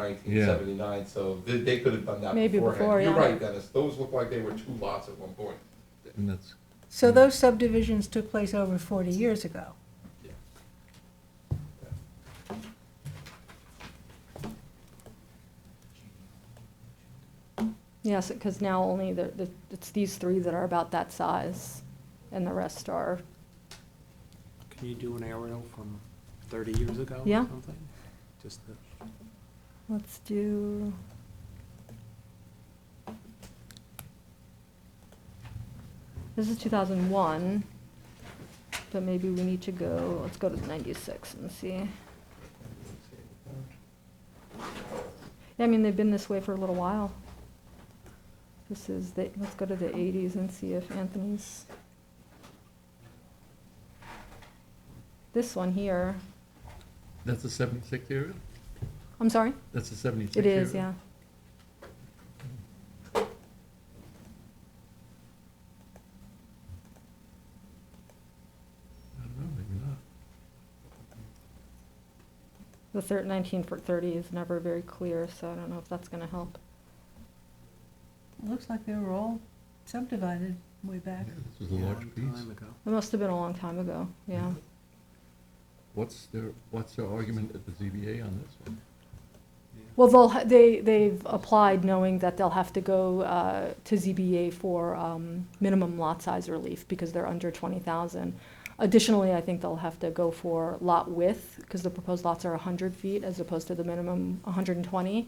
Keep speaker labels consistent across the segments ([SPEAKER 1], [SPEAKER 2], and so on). [SPEAKER 1] nineteen seventy-nine, so they, they could have done that
[SPEAKER 2] Maybe
[SPEAKER 1] beforehand.
[SPEAKER 2] before,
[SPEAKER 1] You're
[SPEAKER 2] yeah.
[SPEAKER 1] right, Dennis, those look like they were two lots at one point.
[SPEAKER 3] And that's,
[SPEAKER 2] So those subdivisions took place over forty years ago.
[SPEAKER 4] Yes, because now only the, the- it's these three that are about that size, and the rest are,
[SPEAKER 5] Can you do an aerial from thirty years ago or
[SPEAKER 4] Yeah.
[SPEAKER 5] something? Just the,
[SPEAKER 4] let's do. This is 2001, but maybe we need to go, let's go to 96 and see. I mean, they've been this way for a little while. This is the, let's go to the 80s and see if Anthony's. This one here,
[SPEAKER 3] that's a seventy-six area?
[SPEAKER 4] I'm sorry?
[SPEAKER 3] That's a seventy-six
[SPEAKER 4] It
[SPEAKER 3] area?
[SPEAKER 4] is, yeah.
[SPEAKER 3] I don't know, maybe not.
[SPEAKER 4] The thir- 19 for 30 is never very clear, so I don't know if that's going to help.
[SPEAKER 6] Looks like they were all subdivided way back.
[SPEAKER 3] Yeah, This was a
[SPEAKER 5] long
[SPEAKER 3] large piece.
[SPEAKER 5] time ago.
[SPEAKER 4] It must have been a long time ago,
[SPEAKER 3] Mm-hmm.
[SPEAKER 4] yeah.
[SPEAKER 3] What's their, what's their argument at the ZBA on this one?
[SPEAKER 4] Well, they'll, ha- they, they've applied knowing that they'll have to go uh, to ZBA for um, minimum lot size relief because they're under 20,000. Additionally, I think they'll have to go for lot width because the proposed lots are 100 feet as opposed to the minimum 120.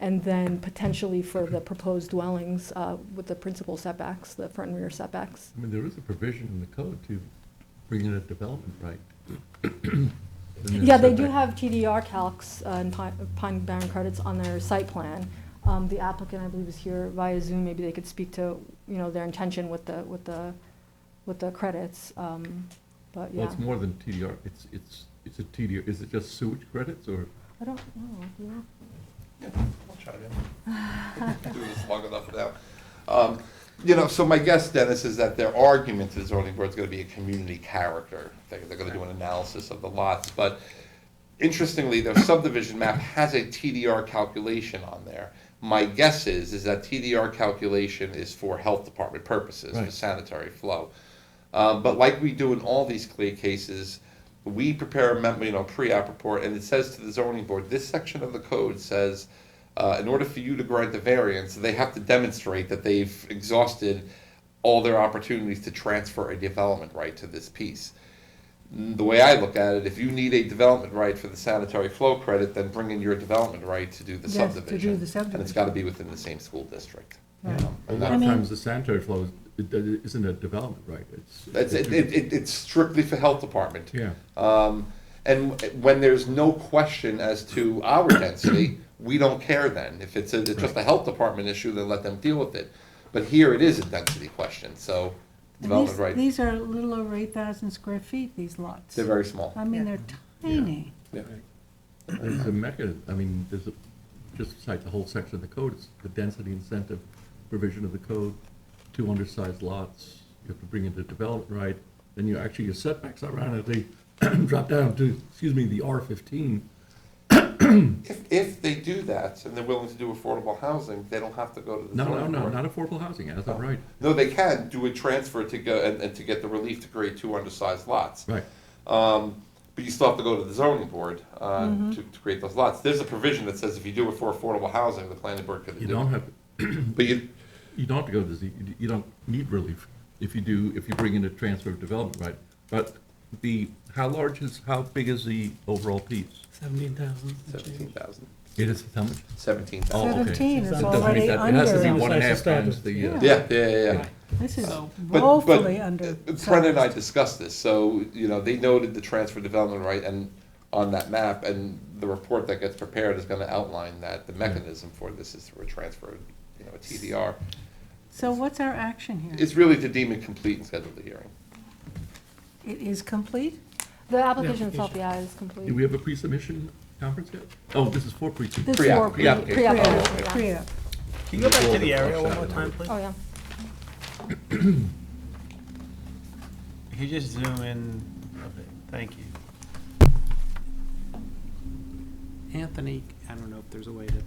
[SPEAKER 4] And then potentially for the proposed dwellings uh, with the principal setbacks, the front and rear setbacks.
[SPEAKER 3] I mean, there is a provision in the code to bring in a development right. And
[SPEAKER 4] Yeah,
[SPEAKER 3] there's
[SPEAKER 4] they do
[SPEAKER 3] setback.
[SPEAKER 4] have TDR calcs uh, and Pine Pine Barren credits on their site plan. Um, The applicant, I believe, is here via Zoom, maybe they could speak to, you know, their intention with the, with the, with the credits, um, but
[SPEAKER 3] Well,
[SPEAKER 4] yeah.
[SPEAKER 3] it's more than TDR, it's, it's, it's a TDR, is it just sewage credits or?
[SPEAKER 4] I don't know, do you?
[SPEAKER 1] Yeah, I'll try to. Do this long enough now. Um, You know, so my guess, Dennis, is that their argument to the zoning board's gonna be a community character. They're, they're gonna do an analysis of the lots, but interestingly, their subdivision map has a TDR calculation on there. My guess is, is that TDR calculation is for health department purposes, for
[SPEAKER 3] Right.
[SPEAKER 1] sanitary flow. Um, but like we do in all these clear cases, we prepare a memo, you know, pre-app report, and it says to the zoning board, this section of the code says, uh, in order for you to grant the variance, they have to demonstrate that they've exhausted all their opportunities to transfer a development right to this piece. The way I look at it, if you need a development right for the sanitary flow credit, then bring in your development right to do the
[SPEAKER 6] Yes, to do
[SPEAKER 1] subdivision.
[SPEAKER 6] the
[SPEAKER 1] And it's
[SPEAKER 6] subdivision.
[SPEAKER 1] gotta be within the same school district. you
[SPEAKER 6] Right.
[SPEAKER 1] know,
[SPEAKER 3] A
[SPEAKER 1] and
[SPEAKER 3] lot
[SPEAKER 6] I
[SPEAKER 3] of
[SPEAKER 6] mean-
[SPEAKER 3] times the sanitary flow, it, it isn't a development right, it's.
[SPEAKER 1] That's, it, it, it- it's strictly for health department.
[SPEAKER 3] Yeah,
[SPEAKER 1] Um, and when there's no question as to our density, we don't care then. If it's, a, it's just a health department issue, then let them deal with it. But here it is a density question, so
[SPEAKER 6] And
[SPEAKER 1] development
[SPEAKER 6] these-
[SPEAKER 1] right,
[SPEAKER 6] These are a little over eight thousand square feet, these lots.
[SPEAKER 1] they're very small.
[SPEAKER 6] I mean, they're tiny.
[SPEAKER 3] there's a mechanism, I mean, there's a, just cite the whole section of the code, it's the density incentive provision of the code, two undersized lots, you have to bring in the development right, then you, actually, your setbacks ironically drop down to, excuse me, the R fifteen.
[SPEAKER 1] If, if they do that and they're willing to do affordable housing, they don't have to go to the
[SPEAKER 3] No, no,
[SPEAKER 1] zoning
[SPEAKER 3] no,
[SPEAKER 1] board.
[SPEAKER 3] not affordable housing, that's not right,
[SPEAKER 1] No, they can do a transfer to go, and, and to get the relief to create two undersized lots.
[SPEAKER 3] right.
[SPEAKER 1] Um, but you still have to go to the zoning board, uh, to, to create those lots. There's a provision that says if you do it for affordable housing, the planning board could do it.
[SPEAKER 3] You don't have,
[SPEAKER 1] But you,
[SPEAKER 3] you don't have to go to Z, you- you don't need relief if you do, if you bring in a transfer of development right. But the, how large is, how big is the overall piece?
[SPEAKER 5] Seventeen thousand.
[SPEAKER 1] seventeen thousand.
[SPEAKER 3] It is how much?
[SPEAKER 1] Seventeen
[SPEAKER 3] Oh, okay.
[SPEAKER 1] thousand.
[SPEAKER 6] Seventeen is
[SPEAKER 3] It doesn't meet
[SPEAKER 6] already
[SPEAKER 3] that- It has to be
[SPEAKER 6] under,
[SPEAKER 3] one and a half
[SPEAKER 7] Undersized
[SPEAKER 3] times the, uh,
[SPEAKER 6] establishment.
[SPEAKER 1] Yeah, yeah, yeah, yeah.
[SPEAKER 6] this is
[SPEAKER 5] So-
[SPEAKER 1] But- but
[SPEAKER 6] Oh. woefully under.
[SPEAKER 1] Brendan and I discussed this, so, you know, they noted the transfer development right and on that map, and the report that gets prepared is gonna outline that the mechanism for this is through a transfer, you know, a TDR.
[SPEAKER 6] So what's our action here?
[SPEAKER 1] It's really to deem it complete and schedule the hearing.
[SPEAKER 6] It is complete?
[SPEAKER 4] The application itself, yeah, is complete.
[SPEAKER 3] Do we have a pre-submission conference yet? Oh, this is for pre-submission.
[SPEAKER 4] This
[SPEAKER 1] Pre-app,
[SPEAKER 4] for pre-
[SPEAKER 1] pre-application.
[SPEAKER 4] pre-application, yeah.
[SPEAKER 6] Priya,
[SPEAKER 7] Can you go back to the aerial one more time, please?
[SPEAKER 4] Oh, yeah.
[SPEAKER 7] If you Oh. just zoom in a bit, thank you.
[SPEAKER 5] Anthony, I don't know if there's a way to